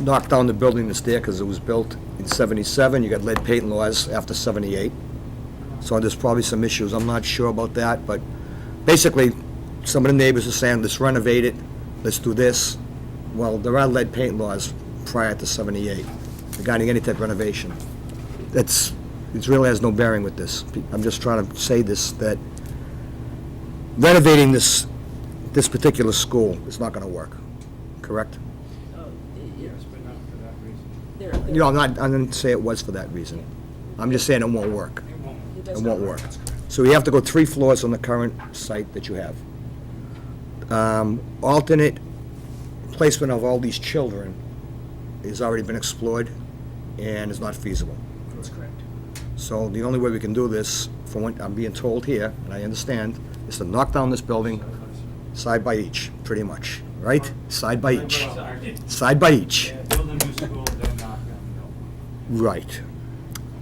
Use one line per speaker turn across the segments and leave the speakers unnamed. knocked down the building that's there because it was built in 77. You got lead paint laws after 78. So there's probably some issues. I'm not sure about that, but basically, some of the neighbors are saying, let's renovate it, let's do this. Well, there are lead paint laws prior to 78 regarding any type of renovation. That's, it really has no bearing with this. I'm just trying to say this, that renovating this, this particular school is not going to work, correct?
Oh, it- it-
Yes, but not for that reason.
there-
You know, I'm not, I didn't say it was for that reason. I'm just saying it won't work.
It won't.
it
It
does not
won't work. So you have to go three floors on the current site that you have. Um, Alternate placement of all these children has already been explored and is not feasible.
That's correct.
So the only way we can do this, from what I'm being told here, and I understand, is to knock down this building side by each, pretty much, right? Side by each.
Sorry.
Side by each.
Yeah, build a new school, then knock down the old one.
Right.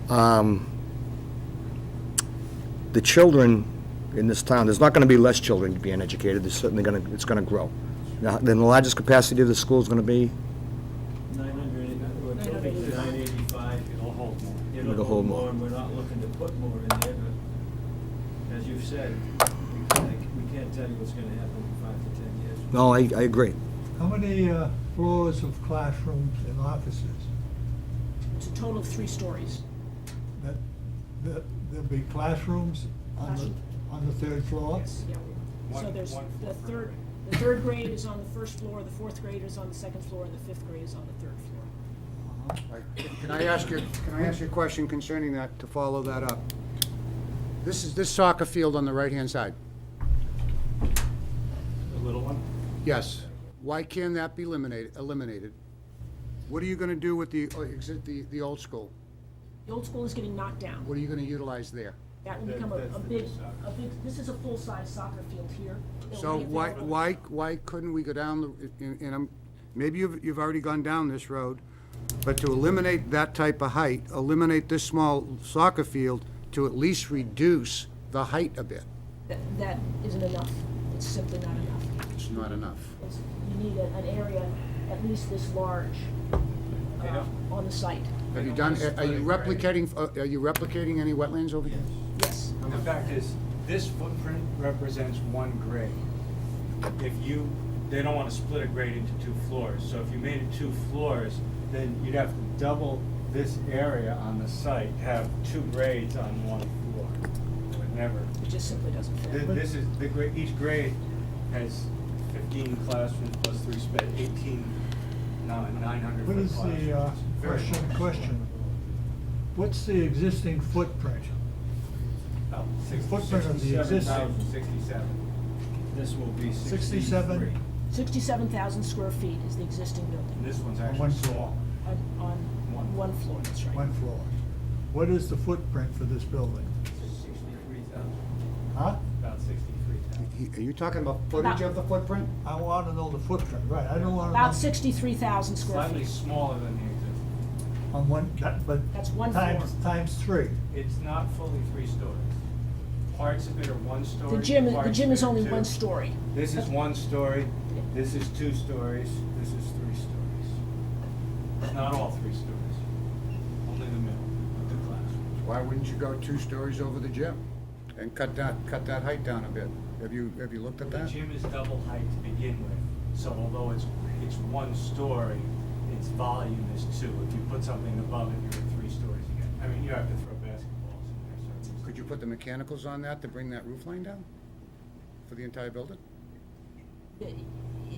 Um, The children in this town, there's not going to be less children being educated, there's certainly going to, it's going to grow. Now, Then the largest capacity of the school is going to be,
900, we're hoping to 985.
It'll hold more.
It'll hold more.
And we're not looking to put more in there, but as you've said, we can't, we can't tell you what's gonna happen in five to 10 years.
no, I, I agree.
How many uh, floors of classrooms and offices?
It's a total of three stories.
That, that, there'll be classrooms on the, on the third floor?
Yeah. So
One-
there's,
one floor
the
per
third,
grade.
the third grade is on the first floor, the fourth grade is on the second floor, and the fifth grade is on the third floor.
Can I ask you, can I ask you a question concerning that, to follow that up? This is, this soccer field on the right-hand side,
The little one?
yes. Why can that be eliminated, eliminated? What are you gonna do with the, uh, exi- the, the old school?
The old school is getting knocked down.
What are you gonna utilize there?
That will
That-
become a,
that's
a
the
big,
new soccer.
a big, this is a full-size soccer field here. It will
So
be
why,
available-
why, why couldn't we go down, the and and I'm, maybe you've, you've already gone down this road, but to eliminate that type of height, eliminate this small soccer field to at least reduce the height a bit.
That, that isn't enough. It's simply not enough.
It's not enough.
It's, you need a- an area at least this large, uh, on the site.
Have you done, are you replicating, uh, are you replicating any wetlands over here?
Yes.
And The fact is, this footprint represents one grade. If you, they don't want to split a grade into two floors, so if you made it two floors, then you'd have to double this area on the site, have two grades on one floor. It Would never,
It just simply doesn't fit.
Th- this is, the grade, each grade has fifteen classrooms plus three spe, eighteen, nine hundred
What
foot
is
classrooms.
the uh,
Very
question,
large.
question? What's the existing footprint?
About six-
Footprint of the
67,000,
existing.
Sixty-seven. This will be sixty-three.
67?
Sixty-seven thousand square feet is the existing
And
building,
This one's
On
actually
one floor.
small.
on, on
One.
one floor, that's right.
One floor. What is the footprint for this building?
Sixty-three thousand,
Huh?
about sixty-three thousand.
Are you talking about footage of the footprint?
I want to know the footprint, right, I don't want to know.
About sixty-three thousand square
Slightly
feet.
smaller than the existing.
On one, that- but.
That's one
Times,
floor.
times three.
It's not fully three stories. Parts of it are one story.
The gym, the
parts
gym
of
is
it are
only
two.
one story. Uh,
This is one story, this is two stories, this is three stories. Not all three stories, only the middle of the classroom.
Why wouldn't you go two stories over the gym and cut that, cut that height down a bit? Have you, have you looked at
The
that?
gym is double height to begin with, so although it's, it's one story, its volume is two. If you put something above it, you're at three stories again. I mean, you have to throw basketballs in there, so. it's-
Could you put the mechanicals on that to bring that roof line down for the entire building?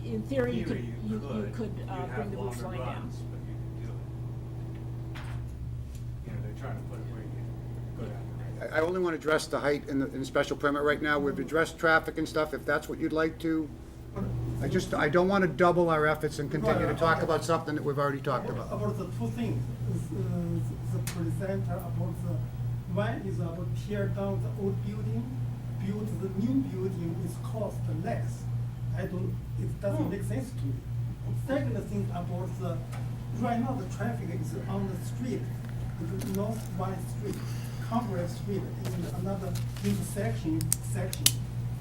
In theory, you could, you, you could, uh,
You'd
bring
have
the roof
longer
line down.
runs, but you could do it. You know, they're trying to put it where you go down the road.
I, I only want to address the height in the, in the special permit right now. We've addressed traffic and stuff, if that's what you'd like to. I just, I don't want to double our efforts and continue to talk about something that we've already talked about.
About the two things, the, the presenter about the, one is about tear down the old building, build the new building is cost less. I don't, it doesn't make sense to me. Second thing about the, right now the traffic is on the street, the North Valley Street, Congress Street is another intersection, section.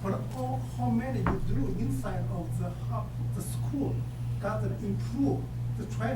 But all, how many you do inside of the, hou- the school doesn't improve the traffic.